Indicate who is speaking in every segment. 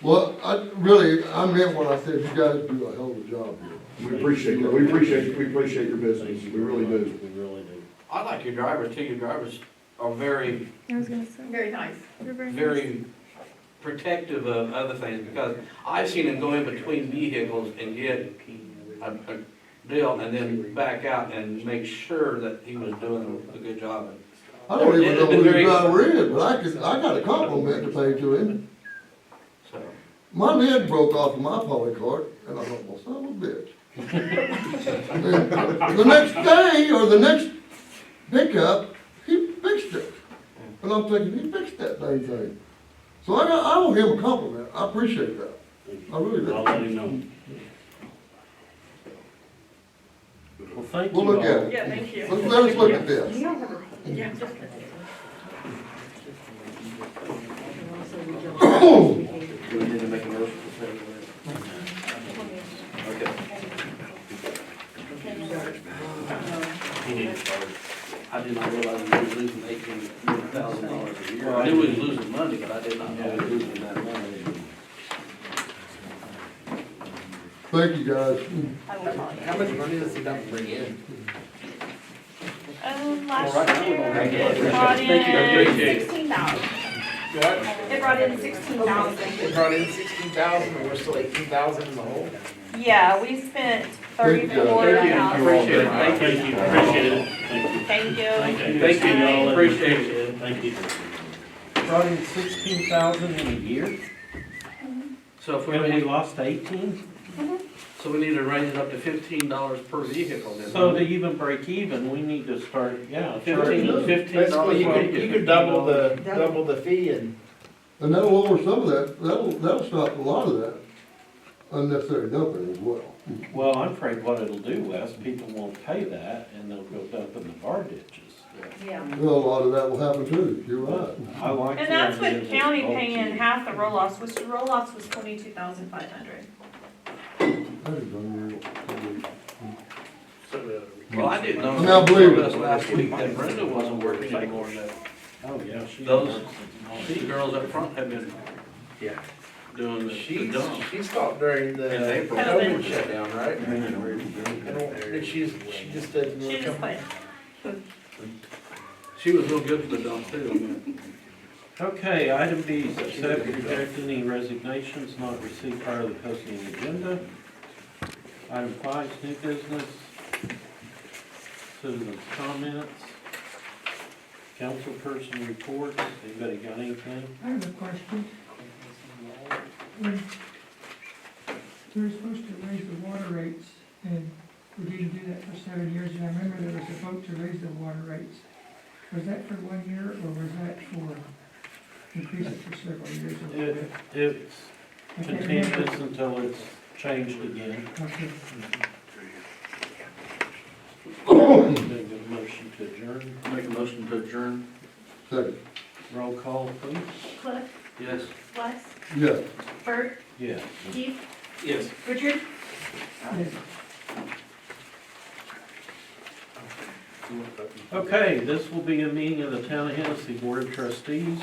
Speaker 1: Well, I, really, I meant what I said, you guys do a hell of a job here.
Speaker 2: We appreciate that, we appreciate, we appreciate your business, we really do.
Speaker 3: We really do.
Speaker 4: I like your drivers too, your drivers are very,
Speaker 5: I was gonna say.
Speaker 6: Very nice.
Speaker 5: They're very nice.
Speaker 4: very protective of other things, because I've seen them go in between vehicles and get a, a deal, and then back out and make sure that he was doing a good job.
Speaker 1: I don't even know who the
Speaker 4: Very-
Speaker 1: driver is, but I could, I got a compliment to pay to him.
Speaker 4: So,
Speaker 1: My lid broke off of my poly cart, and I thought, well, son of a bitch. And then The next day, or the next pickup, he fixed it. And I'm thinking, he fixed that dang thing. So I got, I owe him a compliment, I appreciate that, I really
Speaker 3: I'll
Speaker 1: do.
Speaker 3: let him know. Well, thank you
Speaker 1: We'll look at
Speaker 3: all.
Speaker 1: it.
Speaker 6: Yeah, thank you.
Speaker 1: Let- let us look at this.
Speaker 6: You don't have a- Yeah, just a minute.
Speaker 4: do we need to make a motion to say that? Okay.
Speaker 3: He needs to-
Speaker 4: I did not realize we were losing eighteen thousand dollars a year. I knew we was losing money, but I did not know we were losing that money.
Speaker 1: Thank you, guys.
Speaker 6: I will call you.
Speaker 7: How much money does he dump bring in?
Speaker 5: Um,
Speaker 4: All right,
Speaker 5: last
Speaker 4: we're
Speaker 5: year,
Speaker 4: gonna make
Speaker 5: it
Speaker 4: it.
Speaker 5: brought
Speaker 4: Thank you, I
Speaker 5: in
Speaker 4: appreciate it.
Speaker 5: sixteen dollars.
Speaker 7: What?
Speaker 6: They brought in sixteen
Speaker 7: They
Speaker 6: thousand.
Speaker 7: brought in sixteen thousand and we're still eighteen thousand in the hole?
Speaker 5: Yeah, we spent
Speaker 1: Thank you, guys.
Speaker 5: thirty-four
Speaker 4: I
Speaker 5: dollars.
Speaker 4: appreciate it, thank
Speaker 3: Thank
Speaker 4: you.
Speaker 3: you, appreciate it. Thank you.
Speaker 5: Thank you.
Speaker 3: Thank you.
Speaker 4: Thank you,
Speaker 3: y'all.
Speaker 4: appreciate it.
Speaker 3: Thank you. Brought in sixteen thousand in a year,
Speaker 4: So if we,
Speaker 3: and we
Speaker 4: need-
Speaker 3: lost eighteen?
Speaker 4: so we need to raise it up to fifteen dollars per vehicle then.
Speaker 3: So to even break even, we need to start, yeah.
Speaker 4: Fifteen,
Speaker 3: charging.
Speaker 4: fifteen dollars.
Speaker 7: you could, you could double the, double the fee and
Speaker 1: And that'll lower some of that, that'll, that'll stop a lot of that unnecessary dumping as well.
Speaker 3: Well, I'm afraid what it'll do, Wes, people won't pay that, and they'll go dump in the bar ditches.
Speaker 6: Yeah.
Speaker 1: Well, a lot of that will happen too, you're right.
Speaker 3: I like the
Speaker 5: And that's
Speaker 3: idea
Speaker 5: with
Speaker 3: of
Speaker 5: county
Speaker 3: bulky.
Speaker 5: paying half the roll-offs, which the roll-offs was twenty-two thousand five hundred.
Speaker 1: That is unreal.
Speaker 4: Well, I didn't know.
Speaker 1: And I believe it.
Speaker 4: Us Last week that Brenda wasn't working anymore, and that
Speaker 3: Oh, yeah. she
Speaker 4: Those-
Speaker 3: works and all.
Speaker 4: she girls up front have been.
Speaker 7: Yeah.
Speaker 4: Doing the the
Speaker 7: she's,
Speaker 4: dump.
Speaker 7: she stopped during the
Speaker 4: And they-
Speaker 7: COVID shutdown, right? I
Speaker 4: She
Speaker 7: don't, and she's, she just doesn't
Speaker 5: She
Speaker 7: really
Speaker 5: just
Speaker 7: come.
Speaker 5: quit.
Speaker 4: was real good for the dump too.
Speaker 3: Okay, item B, is accept, reject any resignations not received prior to the posting of the agenda. Item five is new business. Citizens' comments. Councilperson reports, anybody got anything?
Speaker 8: I have a question. When They were supposed to raise the water rates, and we didn't do that for seven years, and I remember there was a vote to raise the water rates. Was that for one year, or was that for increase it for several years? or
Speaker 3: It,
Speaker 8: what?
Speaker 3: it's
Speaker 8: I can't remember.
Speaker 3: continuous until it's changed again.
Speaker 8: Okay.
Speaker 3: Make a motion to adjourn.
Speaker 4: Make a motion to adjourn.
Speaker 1: Second,
Speaker 3: Roll call, please.
Speaker 6: Cliff,
Speaker 4: Yes.
Speaker 6: Wes,
Speaker 1: yes.
Speaker 6: Bert,
Speaker 3: Yeah.
Speaker 6: Keith,
Speaker 4: Yes.
Speaker 6: Richard.
Speaker 8: Yes.
Speaker 3: Okay, this will be a meeting of the Town of Hennessy Board of Trustees,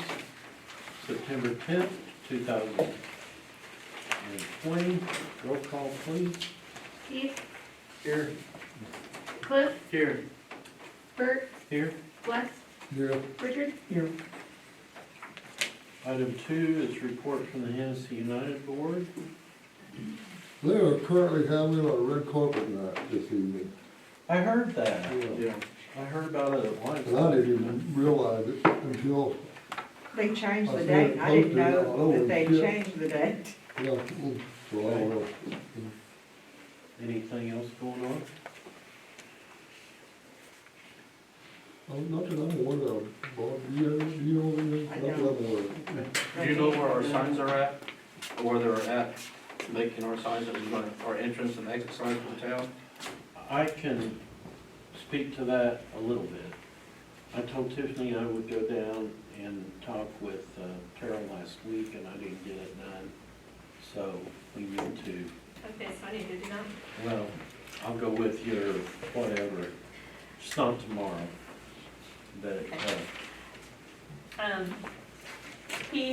Speaker 3: September tenth, two thousand and twenty. Roll call, please.
Speaker 6: Keith,
Speaker 7: Here,
Speaker 6: Cliff,
Speaker 4: Here.
Speaker 6: Bert,
Speaker 3: Here.
Speaker 6: Wes,
Speaker 1: Yeah.
Speaker 6: Richard.
Speaker 8: Here.
Speaker 3: Item two is report from the Hennessy United Board.
Speaker 1: They are currently having a red carpet night this evening.
Speaker 3: I heard that.
Speaker 1: Yeah.
Speaker 3: I heard about it at once.
Speaker 1: And I didn't even realize it until,
Speaker 9: They changed
Speaker 1: I
Speaker 9: the
Speaker 1: said
Speaker 9: date, I didn't
Speaker 1: posted it all
Speaker 9: know
Speaker 1: over
Speaker 9: that they
Speaker 1: the ship.
Speaker 9: changed the date.
Speaker 1: yeah, mm, so I don't know.
Speaker 3: Anything else going on?
Speaker 1: Oh, Not that I'm aware of, Bob, do you, do you know anything?
Speaker 9: I
Speaker 1: Not that I'm aware of.
Speaker 4: Do you know where our signs are at, or where they're at, making our signs, that we're gonna- our entrance and exit signs for the town?
Speaker 3: I can speak to that a little bit. I told Tiffany I would go down and talk with uh, Terrell last week, and I didn't get it done. So we need to,
Speaker 6: Okay, so I need to do that.
Speaker 3: well, I'll go with your whatever, it's not tomorrow. But uh,
Speaker 6: Um,
Speaker 5: He